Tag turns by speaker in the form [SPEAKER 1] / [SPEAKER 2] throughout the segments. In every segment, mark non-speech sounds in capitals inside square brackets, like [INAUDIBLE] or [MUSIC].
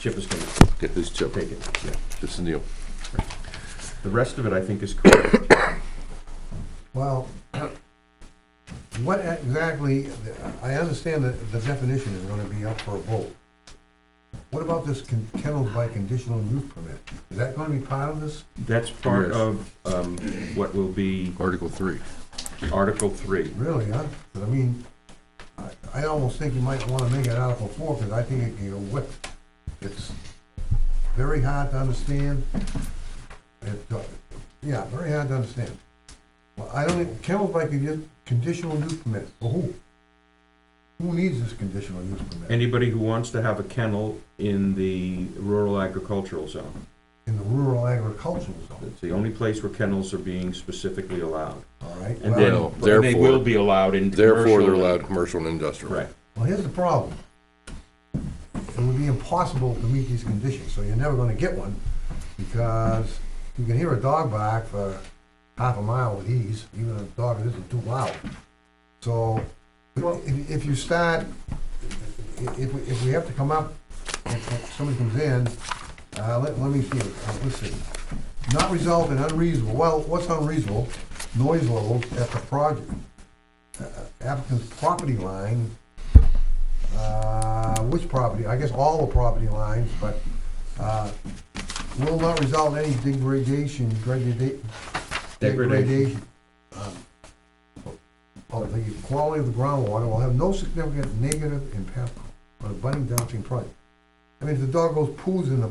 [SPEAKER 1] Chip is gonna
[SPEAKER 2] Yeah, this is Chip.
[SPEAKER 1] take it, yeah.
[SPEAKER 2] This is Neil.
[SPEAKER 1] The rest of it, I think, is correct.
[SPEAKER 3] Well, what exactly, I understand that the definition is gonna be up for a vote. What about this con- kennel by conditional use permit? Is that gonna be part of this?
[SPEAKER 1] That's part
[SPEAKER 2] Yes.
[SPEAKER 1] of, um, what will be
[SPEAKER 2] Article three.
[SPEAKER 1] Article three.
[SPEAKER 3] Really, huh? 'Cause I mean, I, I almost think you might wanna make it Article four, because I think it can go whipped. It's very hard to understand. It, uh, yeah, very hard to understand. Well, I don't, think- kennel by condi- conditional use permit, for who? Who needs this conditional use permit?
[SPEAKER 1] Anybody who wants to have a kennel in the rural agricultural zone.
[SPEAKER 3] In the rural agricultural zone,
[SPEAKER 1] It's the only place where kennels are being specifically allowed.
[SPEAKER 3] all right?
[SPEAKER 1] And
[SPEAKER 3] Well,
[SPEAKER 2] Well,
[SPEAKER 1] then, but they
[SPEAKER 2] therefore-
[SPEAKER 1] will be allowed in commercial.
[SPEAKER 2] Therefore, they're allowed commercial and industrial.
[SPEAKER 1] Right.
[SPEAKER 3] Well, here's the problem. It would be impossible to meet these conditions, so you're never gonna get one, because you can hear a dog bark for half a mile with ease, even a dog that isn't too loud. So, if, if you start, i- if, we- if we have to come up, if if somebody comes in, uh, let, let me see, uh, let's see. Not result in unreasonable, well, what's unreasonable? Noise levels at the project, uh, applicant's property line uh, which property, I guess all the property lines, but, uh, will not result in any degradation, degradation.
[SPEAKER 1] Degradation.
[SPEAKER 3] um, Of the quality of the groundwater will have no significant negative impact on abutting downstream project. I mean, if the dog goes poos in the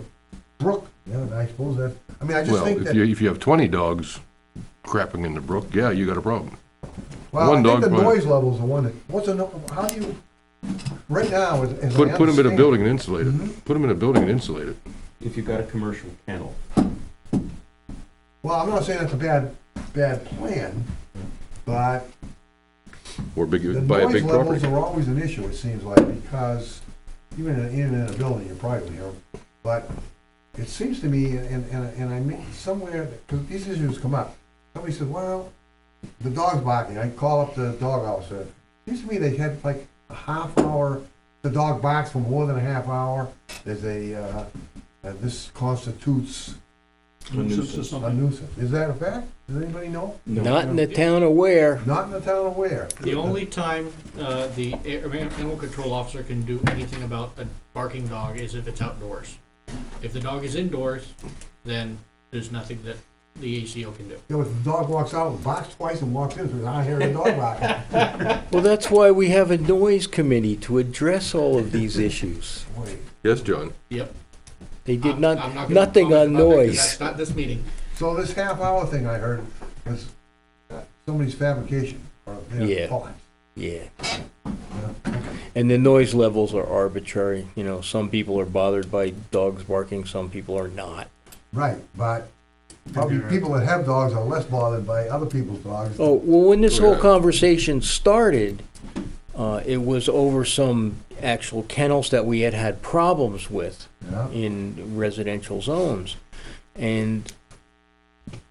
[SPEAKER 3] brook, then I suppose that, I mean, I just
[SPEAKER 2] Well,
[SPEAKER 3] think
[SPEAKER 2] if
[SPEAKER 3] that.
[SPEAKER 2] you, if you have twenty dogs crapping in the brook, yeah, you got a problem.
[SPEAKER 3] Well,
[SPEAKER 2] one
[SPEAKER 3] I
[SPEAKER 2] dog
[SPEAKER 3] think the
[SPEAKER 2] might-
[SPEAKER 3] noise level's the one that, what's a, no- how do you, right now, as, as I
[SPEAKER 2] Put, put them in a
[SPEAKER 3] understand-
[SPEAKER 2] building and insulate
[SPEAKER 3] Mhm.
[SPEAKER 2] it. Put them in a building and insulate it.
[SPEAKER 1] If you've got a commercial kennel.
[SPEAKER 3] Well, I'm not saying it's a bad, bad plan, but
[SPEAKER 2] Or
[SPEAKER 3] the
[SPEAKER 2] big, buy a
[SPEAKER 3] noise
[SPEAKER 2] big
[SPEAKER 3] levels
[SPEAKER 2] property.
[SPEAKER 3] are always an issue, it seems like, because even in, even in a building, you probably hear 'em. But it seems to me, and, and, and I mean, somewhere, because these issues come up, somebody says, well, the dog's barking, I call up the dog officer. Seems to me they had like a half hour, the dog barks for more than a half hour, there's a, uh, uh, this constitutes a nuisance. Is that a fact? Does anybody know?
[SPEAKER 4] Not in the town of Ware.
[SPEAKER 3] Not in the town of Ware.
[SPEAKER 5] The only time uh, the air- animal control officer can do anything about a barking dog is if it's outdoors. If the dog is indoors, then there's nothing that the ACO can do.
[SPEAKER 3] You know, if the dog walks out, and barks twice and walks in, so I hear the dog
[SPEAKER 4] [LAUGHS]
[SPEAKER 3] barking.
[SPEAKER 4] Well, that's why we have a noise committee to address all of these issues.
[SPEAKER 3] Wait,
[SPEAKER 2] Yes, John.
[SPEAKER 5] Yep.
[SPEAKER 4] They did not,
[SPEAKER 5] I'm- I'm gonna
[SPEAKER 4] nothing on
[SPEAKER 5] comment about that 'cause
[SPEAKER 4] noise.
[SPEAKER 5] That's not this meeting.
[SPEAKER 3] So this half hour thing I heard was uh, somebody's fabrication or their
[SPEAKER 4] Yeah.
[SPEAKER 3] thought.
[SPEAKER 4] Yeah. And the noise levels are arbitrary, you know, some people are bothered by dogs barking, some people are not.
[SPEAKER 3] Right, but probably people that have dogs are less bothered by other people's dogs.
[SPEAKER 4] Oh, well, when this whole
[SPEAKER 2] Yeah.
[SPEAKER 4] conversation started, uh, it was over some actual kennels that we had had problems with.
[SPEAKER 3] Yeah,
[SPEAKER 4] in residential zones. And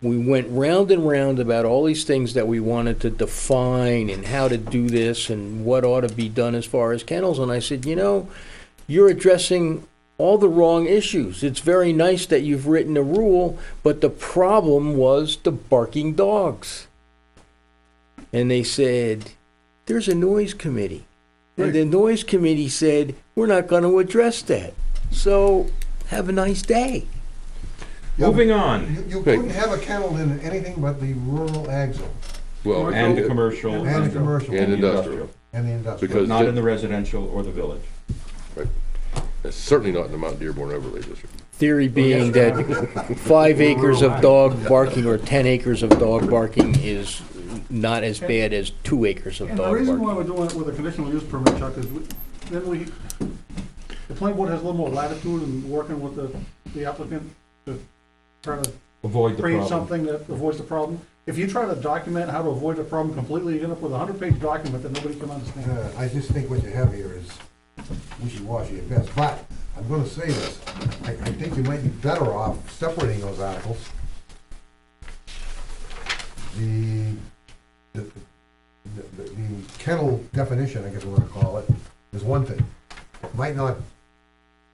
[SPEAKER 4] we went round and round about all these things that we wanted to define and how to do this and what ought to be done as far as kennels. And I said, you know, you're addressing all the wrong issues. It's very nice that you've written a rule, but the problem was the barking dogs. And they said, there's a noise committee. And the noise committee said, we're not going to address that. So have a nice day.
[SPEAKER 1] Moving on.
[SPEAKER 3] You, you
[SPEAKER 2] Hey.
[SPEAKER 3] couldn't have a kennel in anything but the rural ag zone
[SPEAKER 2] Well, uh,
[SPEAKER 1] And
[SPEAKER 2] it-
[SPEAKER 1] commercial.
[SPEAKER 3] and the commercial
[SPEAKER 2] And
[SPEAKER 3] and
[SPEAKER 2] industrial.
[SPEAKER 3] the industrial.
[SPEAKER 2] Because
[SPEAKER 1] Not
[SPEAKER 2] that-
[SPEAKER 1] in the residential or the village.
[SPEAKER 2] that's certainly not in the Mount Dearborn overlay district.
[SPEAKER 4] Theory being that five acres of dog barking or 10 acres of dog barking is not as bad as two acres of
[SPEAKER 6] And the
[SPEAKER 4] dog
[SPEAKER 6] reason why
[SPEAKER 4] barking.
[SPEAKER 6] we're doing it with a conditional use permit, Chuck, is we- then we, the planning board has a little more latitude in working with the, the applicant to try to
[SPEAKER 1] Avoid the
[SPEAKER 6] create
[SPEAKER 1] problem.
[SPEAKER 6] something that avoids the problem. If you try to document how to avoid the problem completely, you end up with a hundred-page document that nobody can understand.
[SPEAKER 3] Uh, I just think what you have here is wishy-washy at best, but I'm gonna say this, I, I think you might be better off separating those articles. The, the, the- the the kennel definition, I guess we're gonna call it, is one thing. It Might not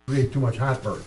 [SPEAKER 3] create too much heartburn.